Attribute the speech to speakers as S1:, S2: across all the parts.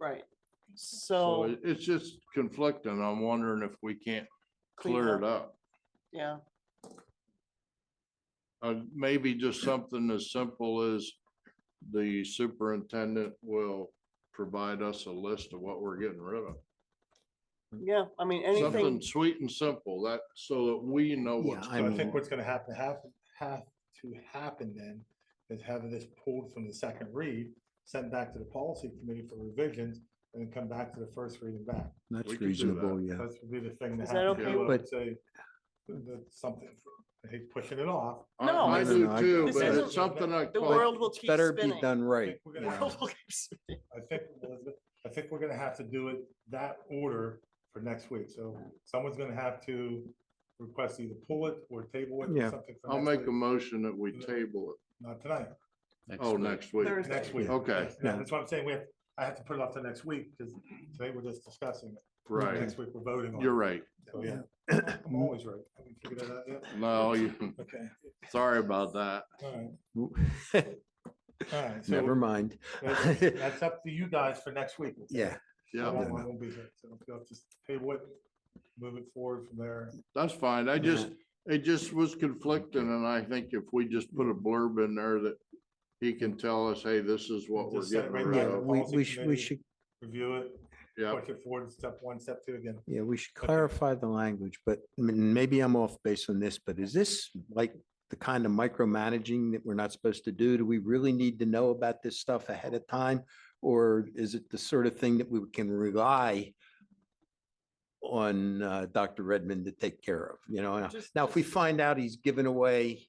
S1: right.
S2: So
S1: So,
S2: it- it's just conflicting. I'm wondering if we can't
S1: Clean
S2: clear it up.
S1: yeah,
S2: Uh, maybe just something as simple as the superintendent will provide us a list of what we're getting rid of.
S1: yeah, I mean, anything,
S2: Something sweet and simple that, so that we know
S3: Yeah,
S2: what's.
S3: I
S4: So I
S2: going-
S3: mean-
S4: think what's gonna happen, have, have to happen then, is have this pulled from the second read, sent back to the policy committee for revisions, and then come back to the first reading back.
S2: We
S3: That's
S2: could do
S3: reasonable, yeah.
S4: That's would be the thing to
S1: Is that
S4: have to
S1: okay
S4: do, I
S3: with-
S4: would say, that- that's something, I hate pushing it off.
S2: I-
S1: No,
S2: I
S3: it's-
S2: do
S3: No, no, I-
S2: too,
S1: This
S2: but
S1: isn't-
S2: it's something I.
S1: the
S2: call-
S1: world will
S3: It's
S1: keep
S3: Better be
S1: spinning.
S3: done
S4: I
S3: right.
S4: think we're
S1: The
S4: gonna
S3: yeah.
S1: world
S4: have-
S1: will keep spinning.
S4: I think, Elizabeth, I think we're gonna have to do it that order for next week, so someone's gonna have to request either pull it or table it
S3: Yeah.
S4: or something. for
S2: I'll
S4: next
S2: make a
S4: week.
S2: motion that we table it.
S4: Not tonight.
S2: Oh, next week.
S1: Thursday.
S4: Next week.
S2: Okay.
S4: Yeah,
S3: Yeah.
S4: that's what I'm saying. We have, I have to put it off to next week because today we're just discussing it.
S2: Right.
S4: Next week, we're voting on. it.
S2: You're right.
S4: So, yeah. I'm always right. Have we figured that out yet?
S2: No, you,
S4: Okay,
S2: sorry about that.
S4: all right, all right.
S3: Never
S4: So
S3: mind.
S4: that's- That's up to you guys for next week. okay?
S3: Yeah,
S4: I
S2: Yeah,
S4: won't I won't be here, so you'll have to table it, move it forward from there.
S2: that's fine. I just,
S4: Mm-hmm.
S2: it just was conflicting and I think if we just put a blurb in there that he can tell us, hey, this is what we're
S4: Just set it
S2: getting
S4: right
S2: rid
S4: back
S3: yeah,
S4: the
S2: of.
S3: we,
S4: policy
S3: we should, we
S4: committee.
S3: should,
S4: Review it,
S2: Yeah,
S4: push it forward, step one, step two again.
S3: yeah, we should
S4: Okay.
S3: clarify the language, but m- maybe I'm off base on this, but is this like the kind of micromanaging that we're not supposed to do? Do we really need to know about this stuff ahead of time? Or is it the sort of thing that we can rely on uh, Dr. Redmond to take care of, you know?
S1: Just-
S3: Now, if we find out he's given away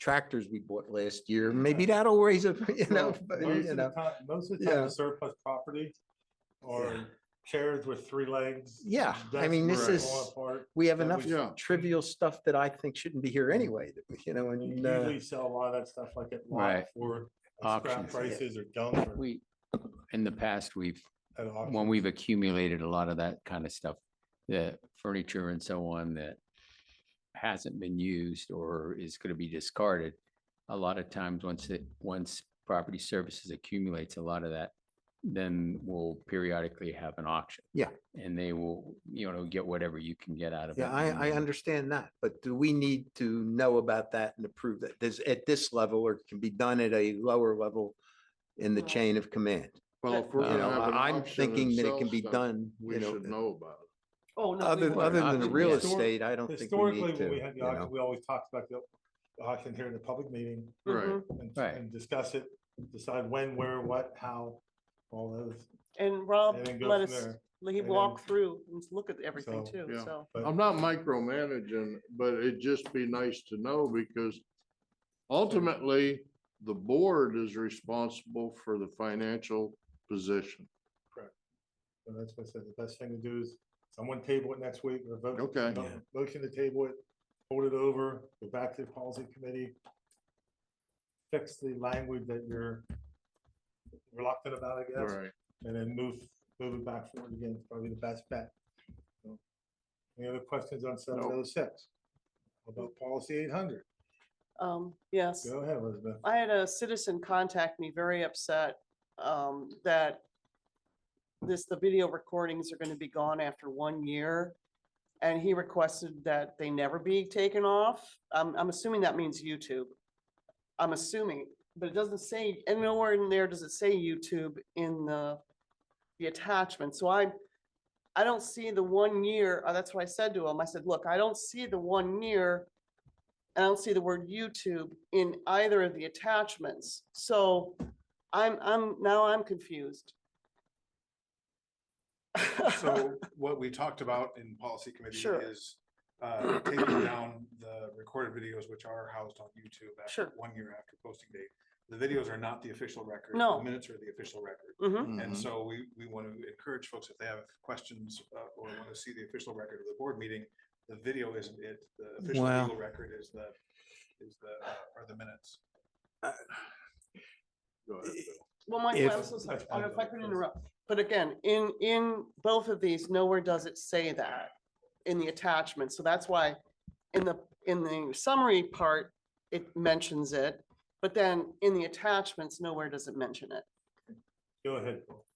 S3: tractors we bought last year, maybe that'll raise a, you know,
S4: Well,
S3: but,
S4: Most
S3: you
S4: of the
S3: know.
S4: time, most of the time,
S3: yeah.
S4: the surplus property
S3: Yeah.
S4: or chairs with three legs.
S3: Yeah, I
S4: desks
S3: mean,
S4: that
S2: this
S4: fall
S3: is-
S4: apart.
S3: We have
S4: that
S3: enough
S4: we-
S2: Yeah.
S3: trivial stuff that I think shouldn't be here anyway, that we- you know,
S4: We
S3: and, uh,
S4: usually sell a lot of that stuff like at lot
S5: Right.
S4: for like, scrap
S5: Auctions.
S4: prices or junk or
S5: We, in the past, we've,
S4: at auction.
S5: when we've accumulated a lot of that kind of stuff, the furniture and so on that hasn't been used or is going to be discarded. A lot of times, once it, once property services accumulates a lot of that, then we'll periodically have an auction.
S3: Yeah.
S5: And they will, you know, get whatever you can get out of it.
S3: yeah, I, I
S5: and-
S3: understand that, but do we need to know about that and approve that? Does, at this level, or it can be done at a lower level in the
S1: Well,
S3: chain of command?
S2: well, if we're
S5: Uh,
S2: gonna
S3: You know,
S2: have an
S3: I- I'm
S2: auction and
S3: thinking that
S2: sell
S3: it can be
S2: stuff,
S3: done,
S2: We
S3: you
S2: should
S3: know, uh,
S2: know about
S1: Oh, no. we
S3: other,
S1: won't.
S3: other than the
S5: Auction,
S3: real
S5: yeah.
S3: estate, I don't think we
S4: Historically,
S3: need to.
S4: when we had the
S3: you know.
S4: auction, we always talked about the the auction here in the public meeting
S2: it. Right.
S1: Mhm.
S4: and,
S5: Right.
S4: and discuss it, decide when, where, what, how, all those.
S1: And Rob
S4: and then go
S1: let
S4: from
S1: us,
S4: there.
S1: let him
S4: And
S1: walk
S4: then-
S1: through and look at everything
S4: So,
S1: too,
S2: yeah.
S1: so.
S4: But-
S2: I'm not micromanaging, but it'd just be nice to know because ultimately, the board is responsible for the financial position.
S4: And that's what I said, the best thing to do is someone table it next week or vote.
S2: Okay.
S4: mo- Motion to table it, hold it over, go back to the policy committee. Fix the language that you're reluctant about, I
S2: All
S4: guess,
S2: right.
S4: and then move, move it back forward again, It's probably the best bet. So, Any other questions on seven oh six? About policy eight hundred?
S1: Um, yes.
S4: Go ahead, Elizabeth.
S1: I had a citizen contact me very upset um, that this, the video recordings are gonna be gone after one year. And he requested that they never be taken off. I'm, I'm assuming that means YouTube. I'm assuming, but it doesn't say, and nowhere in there does it say YouTube in the, the attachment. So I, I don't see the one year, uh, that's what I said to him. I said, look, I don't see the one year I don't see the word YouTube in either of the attachments. So I'm, I'm, now I'm confused.
S6: So what we talked about in policy committee
S1: Sure.
S6: is uh, taking down the recorded videos which are housed on YouTube after
S1: Sure.
S6: one year after posting date. The videos are not the official record.
S1: No.
S6: The minutes are the official record.
S1: Mhm.
S6: And
S2: Mhm.
S3: Mm-hmm.
S6: so we, we want to encourage folks if they have questions uh, or want to see the official record of the board meeting, the video isn't it, the official
S3: Wow.
S6: legal record is the, is the, uh, are the minutes.
S2: Go ahead, Bill.
S1: Well, Michael,
S3: If-
S1: I'm so sorry,
S4: That's
S1: I don't know uh, if I
S4: fine.
S1: could interrupt, but again, in, in both of these, nowhere does it say that in the attachment, so that's why in the, in the summary part, it mentions it, but then in the attachments, nowhere does it mention it.
S4: Go ahead. Paul.